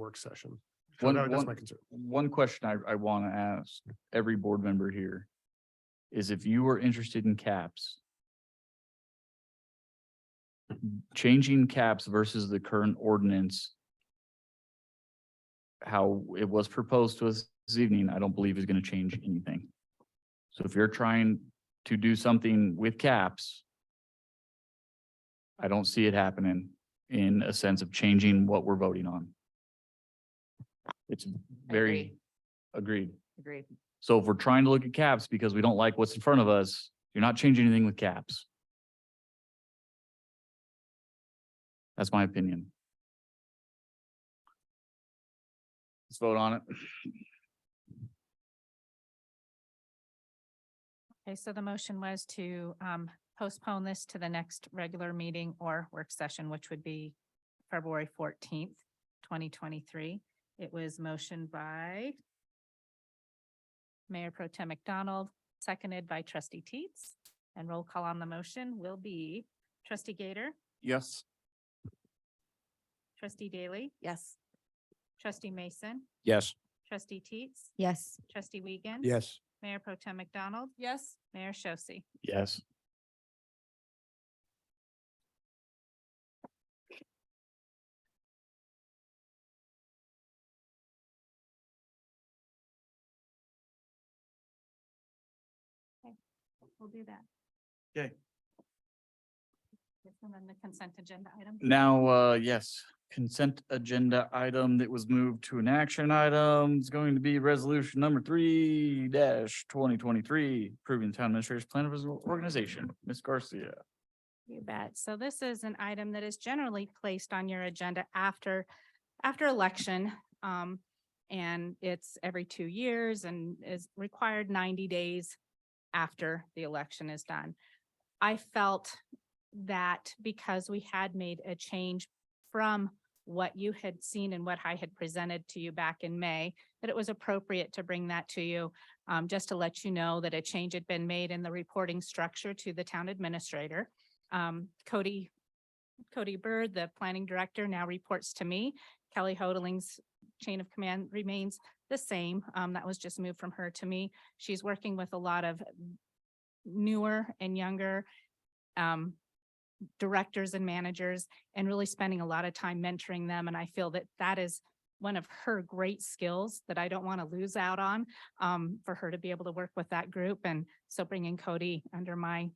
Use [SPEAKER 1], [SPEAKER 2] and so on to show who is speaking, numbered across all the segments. [SPEAKER 1] work session. So
[SPEAKER 2] One-
[SPEAKER 1] that- That's
[SPEAKER 2] one-
[SPEAKER 1] my concern.
[SPEAKER 2] One question I, I want to ask every board member here is if you were interested in caps, changing caps versus the current ordinance, how it was proposed to us this evening, I don't believe is going to change anything. So if you're trying to do something with caps, I don't see it happening in a sense of changing what we're voting on. It's very agreed.
[SPEAKER 3] Agreed.
[SPEAKER 2] So if we're trying to look at caps because we don't like what's in front of us, you're not changing anything with caps. That's my opinion. Let's vote on it.
[SPEAKER 3] Okay, so the motion was to um postpone this to the next regular meeting or work session, which would be February fourteenth, twenty twenty-three. It was motioned by Mayor Pro Tem McDonald, seconded by trustee Teets. And roll call on the motion will be trustee Gator,
[SPEAKER 2] Yes.
[SPEAKER 3] trustee Daly,
[SPEAKER 4] Yes.
[SPEAKER 3] trustee Mason,
[SPEAKER 5] Yes.
[SPEAKER 3] trustee Teets,
[SPEAKER 4] Yes.
[SPEAKER 3] trustee Wiegand.
[SPEAKER 5] Yes.
[SPEAKER 3] Mayor Pro Tem McDonald,
[SPEAKER 4] Yes.
[SPEAKER 3] Mayor Shosse.
[SPEAKER 2] Yes.
[SPEAKER 3] We'll do that.
[SPEAKER 2] Okay.
[SPEAKER 3] And then the consent agenda item.
[SPEAKER 2] Now, uh, yes, consent agenda item that was moved to an action item is going to be resolution number three dash twenty twenty-three, approving town administrator's plan of his organization. Ms. Garcia.
[SPEAKER 3] You bet. So this is an item that is generally placed on your agenda after, after election. Um, and it's every two years and is required ninety days after the election is done. I felt that because we had made a change from what you had seen and what I had presented to you back in May, that it was appropriate to bring that to you. um, just to let you know that a change had been made in the reporting structure to the town administrator um, Cody, Cody Bird, the planning director, now reports to me. Kelly Hodeling's chain of command remains the same. Um, that was just moved from her to me. She's working with a lot of newer and younger, um, directors and managers and really spending a lot of time mentoring them. And I feel that that is one of her great skills that I don't want to lose out on, um, for her to be able to work with that group. And so bringing Cody under my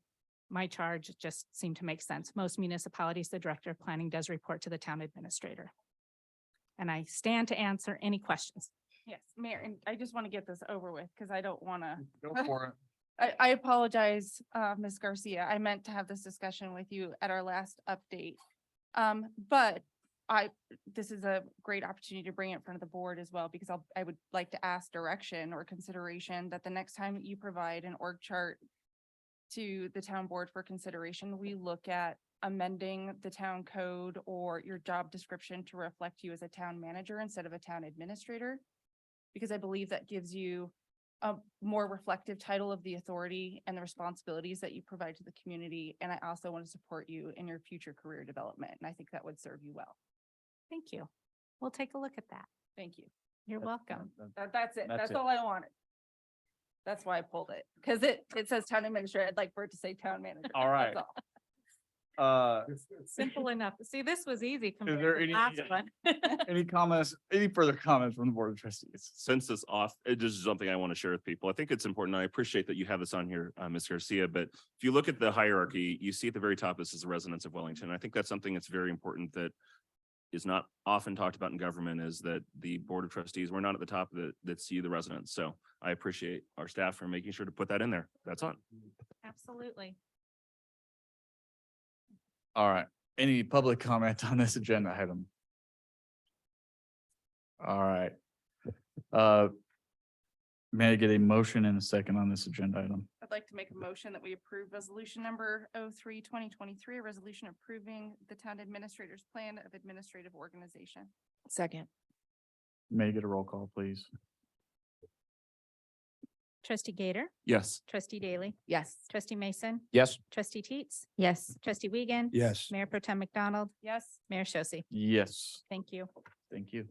[SPEAKER 3] my charge just seemed to make sense. Most municipalities, the director of planning does report to the town administrator. And I stand to answer any questions.
[SPEAKER 6] Yes, Mayor, and I just want to get this over with because I don't want
[SPEAKER 3] Mm.
[SPEAKER 6] to,
[SPEAKER 2] Go for it.
[SPEAKER 6] I, I apologize, uh, Ms. Garcia. I meant to have this discussion with you at our last update. Um, but I, this is a great opportunity to bring it in front of the board as well, because I'll, I would like to ask direction or consideration that the next time you provide an org chart to the town board for consideration, we look at amending the town code or your job description to reflect you as a town manager instead of a town administrator. Because I believe that gives you a more reflective title of the authority and the responsibilities that you provide to the community. And I also want to support you in your future career development, and I think that would serve you well.
[SPEAKER 3] Thank you. We'll take a look at that.
[SPEAKER 6] Thank you.
[SPEAKER 3] You're welcome.
[SPEAKER 6] That, that's it.
[SPEAKER 2] That's
[SPEAKER 6] That's
[SPEAKER 2] it.
[SPEAKER 6] all I wanted. That's why I pulled it, because it, it says town administrator. I'd like for it to say town manager.
[SPEAKER 2] All right.
[SPEAKER 6] That's all.
[SPEAKER 2] Uh,
[SPEAKER 3] Simple enough. See, this was easy compared
[SPEAKER 2] there
[SPEAKER 3] to
[SPEAKER 2] any-
[SPEAKER 3] the last one.
[SPEAKER 2] Any comments, any further comments from the board of trustees?
[SPEAKER 7] since this off, it just is something I want to share with people. I think it's important. I appreciate that you have this on here, uh, Ms. Garcia, but if you look at the hierarchy, you see at the very top, this is the residents of Wellington. I think that's something that's very important that is not often talked about in government is that the Board of Trustees, we're not at the top that, that see the residents. So I appreciate our staff for making sure to put that in there. That's on.
[SPEAKER 3] Absolutely.
[SPEAKER 2] All right, any public comment on this agenda item? All right. Uh, May I get a motion and a second on this agenda item?
[SPEAKER 6] I'd like to make a motion that we approve resolution number 03 2023, a resolution approving the town administrator's plan of administrative organization.
[SPEAKER 4] Second.
[SPEAKER 2] May I get a roll call, please?
[SPEAKER 3] Trustee Gator,
[SPEAKER 7] Yes.
[SPEAKER 3] trustee Daly,
[SPEAKER 4] Yes.
[SPEAKER 3] trustee Mason,
[SPEAKER 5] Yes.
[SPEAKER 3] trustee Teets,
[SPEAKER 4] Yes.
[SPEAKER 3] trustee Wiegand.
[SPEAKER 5] Yes.
[SPEAKER 3] Mayor Pro Tem McDonald,
[SPEAKER 6] Yes?
[SPEAKER 3] Mayor Shosse.
[SPEAKER 2] Yes,
[SPEAKER 3] Thank you.
[SPEAKER 2] thank you.